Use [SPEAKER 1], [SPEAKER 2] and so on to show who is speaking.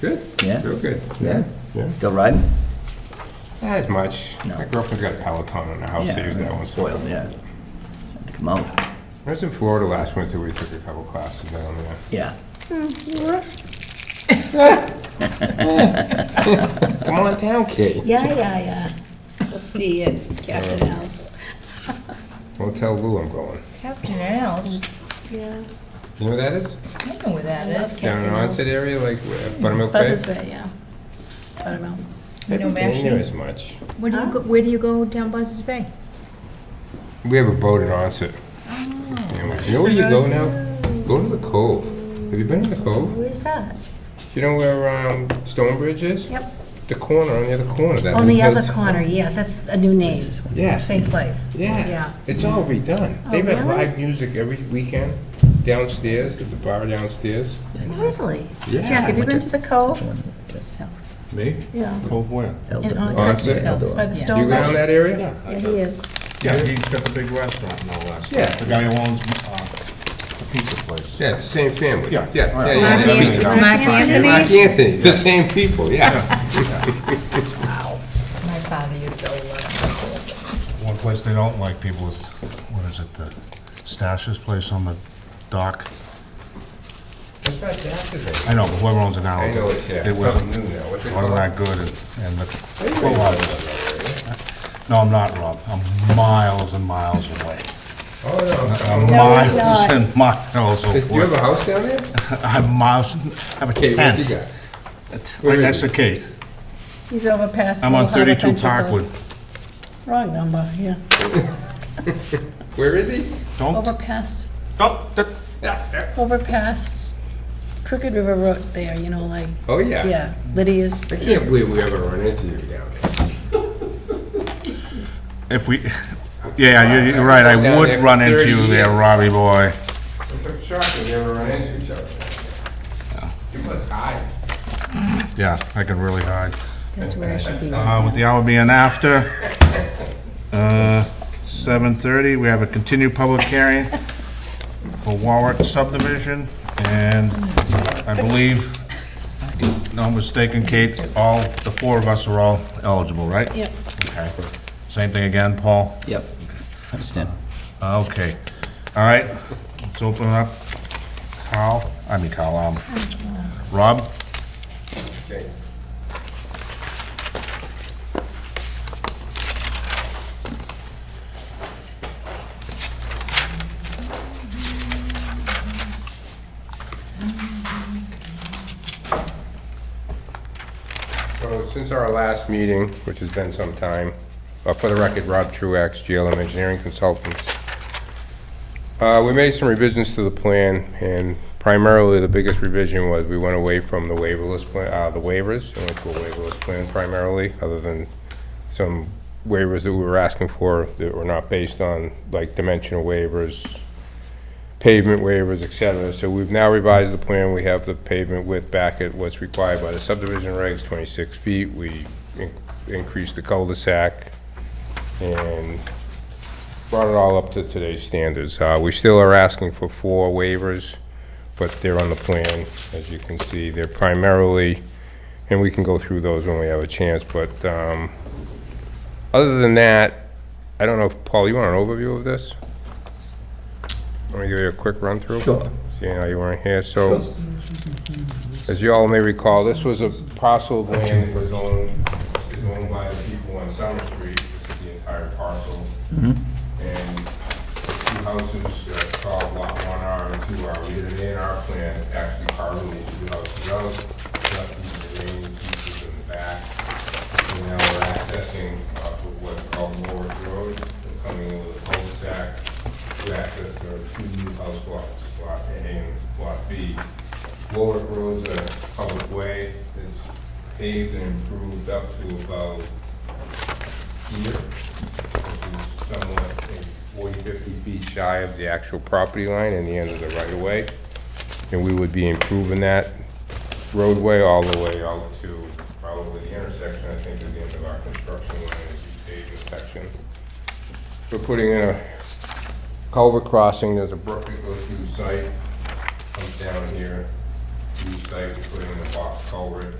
[SPEAKER 1] Good.
[SPEAKER 2] Yeah.
[SPEAKER 1] Real good.
[SPEAKER 2] Yeah.
[SPEAKER 1] Yeah.
[SPEAKER 2] Still riding?
[SPEAKER 1] Not as much.
[SPEAKER 2] No.
[SPEAKER 1] My girlfriend's got a Peloton in her house. I
[SPEAKER 2] Yeah.
[SPEAKER 1] use that one.
[SPEAKER 2] Spoiled, yeah. Had to come out.
[SPEAKER 1] I was in Florida last winter. We took a couple classes down there.
[SPEAKER 2] Yeah.
[SPEAKER 1] Come on down, kid.
[SPEAKER 3] Yeah, yeah, yeah. We'll see you, Captain Alves.
[SPEAKER 1] Well, tell Lou I'm going.
[SPEAKER 4] Captain Al's,
[SPEAKER 3] Yeah.
[SPEAKER 1] You know where that is?
[SPEAKER 4] I don't know where that
[SPEAKER 3] I love
[SPEAKER 4] is.
[SPEAKER 1] Down in
[SPEAKER 3] Captain
[SPEAKER 1] Onset
[SPEAKER 3] Alves.
[SPEAKER 1] area, like where- Buttermilk Bay.
[SPEAKER 3] Buzzes Bay, yeah. Buttermilk.
[SPEAKER 4] You know,
[SPEAKER 1] Haven't been there
[SPEAKER 4] Mashpee.
[SPEAKER 1] as much.
[SPEAKER 4] Where do you go, where do you go down Buzzards Bay?
[SPEAKER 1] We have a boat in Onset. And we- You know where you go now? Go to the Cove. Have you been to the Cove?
[SPEAKER 3] Where's that?
[SPEAKER 1] You know where um, Stonebridge is?
[SPEAKER 3] Yep.
[SPEAKER 1] The corner, on the other corner. That
[SPEAKER 5] On
[SPEAKER 1] new
[SPEAKER 5] the other
[SPEAKER 1] house.
[SPEAKER 5] corner, yes, that's a new name,
[SPEAKER 1] Yes.
[SPEAKER 5] same place.
[SPEAKER 1] Yeah.
[SPEAKER 5] Yeah.
[SPEAKER 1] It's all redone.
[SPEAKER 3] Oh,
[SPEAKER 1] They've had
[SPEAKER 3] really?
[SPEAKER 1] live music every weekend downstairs, at the bar downstairs.
[SPEAKER 5] Really?
[SPEAKER 3] Jack, have you been to the Cove?
[SPEAKER 4] South.
[SPEAKER 6] Me?
[SPEAKER 3] Yeah,
[SPEAKER 6] Cove where?
[SPEAKER 3] in Onset,
[SPEAKER 1] Honestly?
[SPEAKER 3] by the
[SPEAKER 1] You
[SPEAKER 3] Stone
[SPEAKER 1] go down
[SPEAKER 3] Bay.
[SPEAKER 1] that area?
[SPEAKER 3] Yeah, he is.
[SPEAKER 6] Yeah, he's got the big restaurant and all that stuff.
[SPEAKER 1] Yeah.
[SPEAKER 6] The guy who owns, uh, the pizza place.
[SPEAKER 1] Yeah, it's the same family.
[SPEAKER 6] Yeah.
[SPEAKER 1] Yeah,
[SPEAKER 6] All right.
[SPEAKER 1] yeah,
[SPEAKER 6] Mark
[SPEAKER 1] yeah.
[SPEAKER 6] Anthony.
[SPEAKER 1] yeah.
[SPEAKER 6] It's
[SPEAKER 4] Mark
[SPEAKER 1] Mark
[SPEAKER 4] Anthony's.
[SPEAKER 1] Anthony, it's the same people, yeah.
[SPEAKER 4] My father used to love
[SPEAKER 6] One place they don't like people is, what is it, the Stash's place on the dock?
[SPEAKER 1] That's not Jack's,
[SPEAKER 6] I know, but whoever owns it now.
[SPEAKER 1] I know it, yeah.
[SPEAKER 6] It wasn't,
[SPEAKER 1] Something new now. What's it
[SPEAKER 6] wasn't
[SPEAKER 1] called?
[SPEAKER 6] that good and, and the. No, I'm not, Rob. I'm miles and miles away.
[SPEAKER 1] Oh, no.
[SPEAKER 6] I'm
[SPEAKER 3] he's
[SPEAKER 6] miles
[SPEAKER 3] not.
[SPEAKER 6] and miles
[SPEAKER 1] Does- You have a
[SPEAKER 6] away.
[SPEAKER 1] house down there?
[SPEAKER 6] I'm miles, I have a
[SPEAKER 1] Okay, what you
[SPEAKER 6] tent,
[SPEAKER 1] got? Where
[SPEAKER 6] right
[SPEAKER 1] is
[SPEAKER 6] next
[SPEAKER 1] it?
[SPEAKER 6] to Kate.
[SPEAKER 3] He's over past.
[SPEAKER 6] I'm on
[SPEAKER 3] Little Harbor
[SPEAKER 6] thirty-two
[SPEAKER 3] Country Club.
[SPEAKER 6] Parkwood.
[SPEAKER 3] Wrong number, yeah.
[SPEAKER 1] Where is he?
[SPEAKER 6] Don't,
[SPEAKER 3] Over past,
[SPEAKER 6] don't, that-
[SPEAKER 3] over past Crooked River Road there, you know, like,
[SPEAKER 1] Oh, yeah.
[SPEAKER 3] yeah, Lydia's.
[SPEAKER 1] I can't believe we ever run into you down there.
[SPEAKER 6] if we, yeah, you're, you're right, I
[SPEAKER 1] Down
[SPEAKER 6] would
[SPEAKER 1] there for
[SPEAKER 6] run
[SPEAKER 1] 30
[SPEAKER 6] into you there,
[SPEAKER 1] years.
[SPEAKER 6] Robbie boy.
[SPEAKER 1] I'm shocked we never run into each other. You must hide.
[SPEAKER 6] Yeah, I can really hide.
[SPEAKER 5] That's where I should be.
[SPEAKER 6] Uh, with the hour being after, uh, seven thirty, we have a continued public hearing for Warwick subdivision, and I believe, no mistaken, Kate, all, the four of us are all eligible, right?
[SPEAKER 3] Yep.
[SPEAKER 6] Okay. Same thing again, Paul?
[SPEAKER 2] Yep. Understand.
[SPEAKER 6] Uh, Okay, all right, let's open it up. Carl, I mean Carl, um, Rob?
[SPEAKER 1] Okay. So since our last meeting, which has been some time, uh, for the record, Rob Truax, GLM Engineering Consultants, uh, We made some revisions to the plan, and primarily the biggest revision was we went away from the waiverless, pla- uh, the waivers, and went to a waiverless plan primarily, other than some waivers that we were asking for that were not based on, like dimensional waivers, pavement waivers, et cetera. So we've now revised the plan. We have the pavement width back at what's required by the subdivision regs, 26 feet. We in- increased the cul-de-sac and brought it all up to today's standards. Uh, We still are asking for four waivers, but they're on the plan, as you can see. They're primarily, and we can go through those when we have a chance, but um, other than that, I don't know, if- Paul, you want an overview of this? Want to give you a quick run-through?
[SPEAKER 2] Sure.
[SPEAKER 1] Seeing how you weren't here, so, as you all may recall, this was a parcel of land that was owned, owned by the people on Summer Street, the entire parcel and two houses uh, called Lot 1R and 2R. We did an A and R plan, actually carving these two houses out, left these remaining pieces in the back. And now we're accessing off of what's called Norwood Road, and coming into the cul-de-sac to access the two new house lots, Lot A and Lot B. Warwick Road's a public way, it's paved and improved up to about here which is somewhat I think, 40, 50 feet shy of the actual property line and the end of the right-of-way. And we would be improving that roadway all the way out to probably the intersection, I think, is the end of our construction line, is the paved section. We're putting in a culvert crossing, there's a brook that goes through the site, comes down here, new site, we put in a box culvert,